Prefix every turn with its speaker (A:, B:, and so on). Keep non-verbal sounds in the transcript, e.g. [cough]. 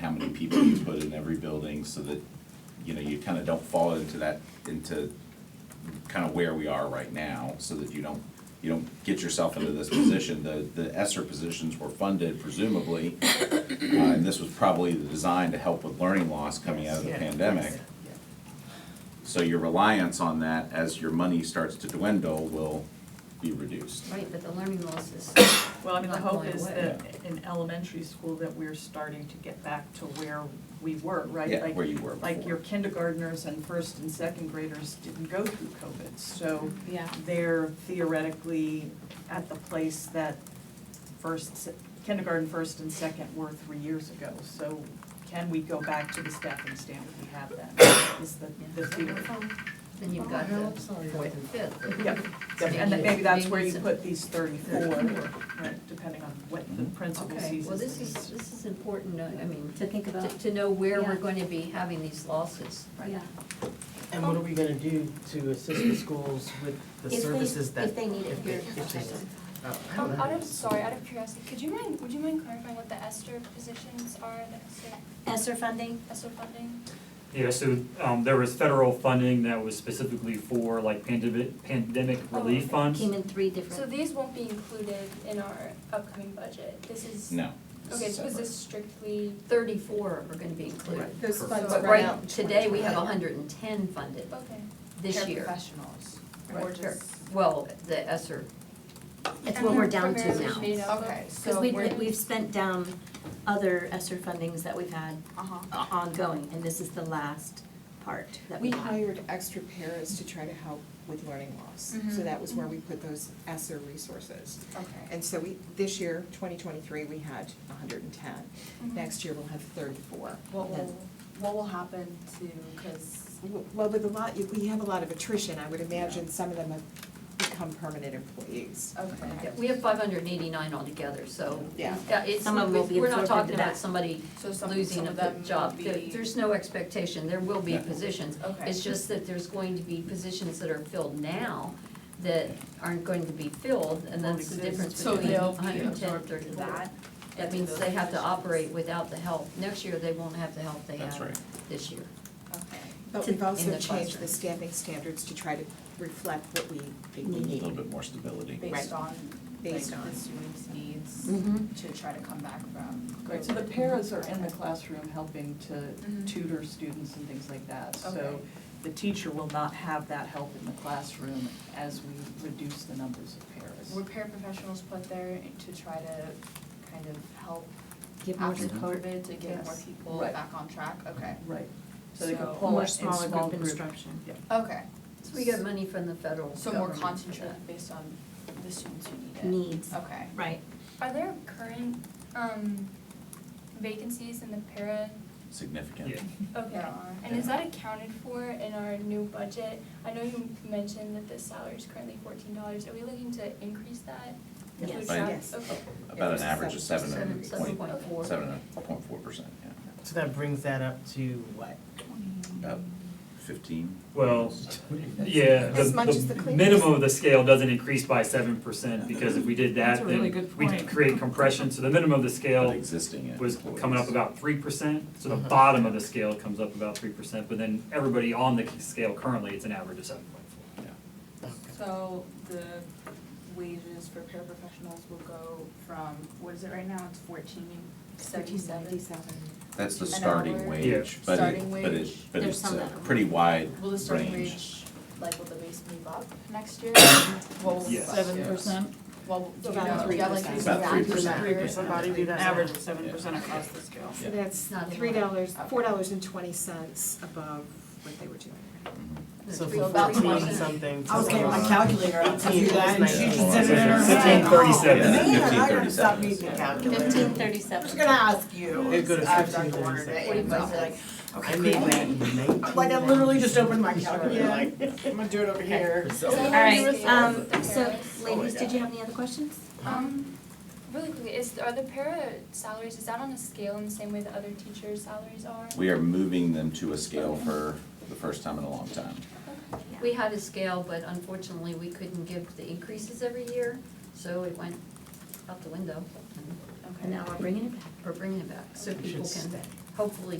A: how many people you put in every building so that, you know, you kind of don't fall into that, into kind of where we are right now, so that you don't, you don't get yourself into this position. The, the ESSER positions were funded presumably, uh, and this was probably designed to help with learning loss coming out of the
B: Yeah.
A: pandemic. So your reliance on that as your money starts to dwindle will be reduced.
C: Right, but the learning loss is.
B: Well, I mean, the
C: not
B: hope
C: going
B: is
C: away.
B: that in elementary school that we're starting to get back to where we were, right?
A: Yeah,
B: Like-
A: where you were
B: Like
A: before.
B: your kindergartners and first and second graders didn't go through COVID, so
D: Yeah.
B: they're theoretically at the place that first, se- kindergarten, first and second were three years ago. So can we go back to the staffing standard we had then, is the, the theory.
C: Then you've got
E: Oh,
C: the
E: I'm sorry.
C: fourth and fifth. [laughs]
B: Yep,
C: So
B: and
C: maybe-
B: maybe that's
C: maybe
B: where you
C: some-
B: put these thirty-four, right, depending on what the
A: Mm-hmm.
B: principal
C: Okay,
B: sees
C: well,
B: as
C: this
B: the-
C: is, this is important, uh, I mean, to
D: To think
C: to,
D: about.
C: to know where we're
D: Yeah.
C: going to be having these losses.
D: Yeah.
E: And what are we gonna do to assist the schools with the
F: If they-
E: services that?
F: if they need it.
E: if they- if they- oh, I don't
F: Um,
E: know.
F: out of, sorry, out of curiosity, could you mind, would you mind clarifying what the ESTR positions are, the ESTR,
D: ESSER funding?
F: ESTR funding?
G: Yeah, so um there was federal funding that was specifically for like pandemic pandemic
F: Oh,
G: relief
F: okay.
E: Mm-hmm.
G: funds.
D: Came in three
F: So
D: different,
F: these won't be included in our upcoming budget, this is.
A: No. this
F: Okay,
A: is
F: so is
A: separate.
F: this strictly,
C: Thirty-four are gonna be included.
H: Those
G: Correct.
H: funds
C: But
H: run
C: right,
H: out.
C: today, we have hundred and ten funded
F: okay,
C: this year.
H: Professionals, or
C: Right.
H: just,
C: Well, the ESSER,
D: that's what we're down to
F: Primarily made
D: now.
F: up.
H: okay,
D: Because
H: so
D: we've,
H: we're.
D: we've spent down other ESSER fundings that we've had
H: Uh-huh.
D: o- ongoing, and this is the last part that we
H: We
D: have.
H: hired extra paras to try to help with learning loss. So
I: Mm-hmm.
F: Mhm.
H: that was where we put those ESSER resources.
F: okay.
H: And so we, this year, twenty twenty-three, we had hundred and ten.
F: Mhm.
H: Next year, we'll have thirty-four.
I: What
H: Then-
I: will, what will happen to, cause,
H: Well, with a lot, we have a lot of attrition. I would imagine some of them have become permanent employees.
I: okay.
C: we have five hundred and eighty-nine altogether, so.
H: Yeah.
C: it's,
D: Some of 'em will be
C: we're not
D: absorbed
C: talking
D: into
C: about
D: that.
C: somebody
I: So some- some
C: losing a
I: of them
C: job.
I: will
C: There-
I: be-
C: There's no expectation, there will be
A: Yeah.
C: positions.
I: Okay.
C: It's just that there's going to be positions that are filled now that aren't going to be filled, and
B: Won't
C: that's the
B: exist.
C: difference
I: So
C: between
I: they'll
C: 110,
I: be
C: 34.
I: absorbed into that?
C: That
I: into
C: means
I: those
C: they have to
I: positions?
C: operate without the help. Next year, they won't have the help they
A: That's
C: have
A: right.
C: this year.
I: Okay.
H: But
D: To-
H: we've
C: in
H: also
C: the
H: changed
C: classroom.
H: the staffing standards to try to reflect what we think we
A: A little
H: need
A: bit more stability.
H: Right.
I: based on, like, the
H: based on.
I: students' needs
D: Mm-hmm.
C: Mhm.
I: to try to come back from.
B: Right, so the paras are in the classroom helping to
I: Mhm.
B: tutor students and things like that. So
I: Okay.
B: the teacher will not have that help in the classroom as we reduce the numbers of
I: Were
B: paras.
I: paraprofessionals put there to try to kind of help
D: Give more
I: after
D: support.
I: COVID to get more
B: Yes.
I: people
B: Right.
I: back on track? Okay,
B: Right, so they
I: So-
B: can pull
D: More
B: it Mm-hmm. in
D: smaller
B: small
D: group
B: group.
D: instruction.
I: okay,
C: So we get money from the federal
I: so more
C: government for that.
I: concentrated based on the students who need it?
D: Needs,
I: Okay.
D: right.
F: Are there current, um, vacancies in the para
A: Significant.
G: Yeah.
F: Okay,
I: There are.
F: and is that accounted for in our new budget? I know you mentioned that the salary is currently fourteen dollars, are we looking to increase that?
D: Yes.
F: Would
A: Right.
F: that-
H: Yes.
F: Okay,
A: About an average of seven
C: Seven,
A: and
C: seven
A: point,
C: point four.
A: seven and point four percent, yeah.
H: So that brings that up to what?
A: About fifteen.
G: Well, yeah, the
H: As much as the
G: the
H: cleaners.
G: minimum of the scale doesn't increase by seven percent because if we did
B: That's
G: that,
B: a really
G: then
B: good
G: we
B: point.
G: could create compression. So the minimum of the
A: But
G: scale
A: existing
G: was
A: employees.
G: coming up about three percent. So the
H: Mhm.
G: bottom of the scale comes up about three percent, but then everybody on the scale currently, it's an average of seven point four.
I: So the wages for paraprofessionals will go from, what is it right now, it's fourteen seventy-seven?
A: That's the
I: An
A: starting
I: hour.
A: wage, but
I: Starting
A: it, but it,
I: wage.
A: but
D: There's
A: it's
D: some
A: a
D: that are-
A: pretty wide
I: Will the starting
A: range.
I: wage, like, will the base move up next year?
B: What was it,
G: Yes.
B: seven percent?
I: Well, do you
H: About
I: know, do you have like
H: 3%.
I: an
A: About
I: exact
A: 3%.
I: number?
B: Average of seven percent across the scale.
H: So that's
C: Not in
H: three
C: line.
H: dollars, four dollars and twenty cents above what they were doing.
C: So
I: from about 14 20.
E: something
I: I was getting my
E: calculator out to you guys.
A: Yeah. Yeah.
G: Fifteen thirty-seven.
A: Yeah.
E: Man,
A: Fifteen
E: I gotta stop
A: thirty-seven.
E: using calculators.
D: Fifteen thirty-seven.
E: ask you. It goes fifteen thirty-seven. I made that in nineteen. Like, I literally just opened my calculator, like, I'm gonna do it over here.
F: So
D: All
F: is
D: right,
F: the-
D: um,
F: the
D: so
F: paras-
E: Oh,
D: ladies, did you have any other questions?
F: Um, really quickly, is, are the para salaries, is that on a scale in the same way that other teachers' salaries are?
A: We are moving them to a scale for the first time in a long time.
C: We had a scale, but unfortunately, we couldn't give the increases every year, so it went out the window. and-
I: Okay.
C: And now we're bringing it back, we're bringing it back, so
E: It should
C: people can
E: stay.
C: hopefully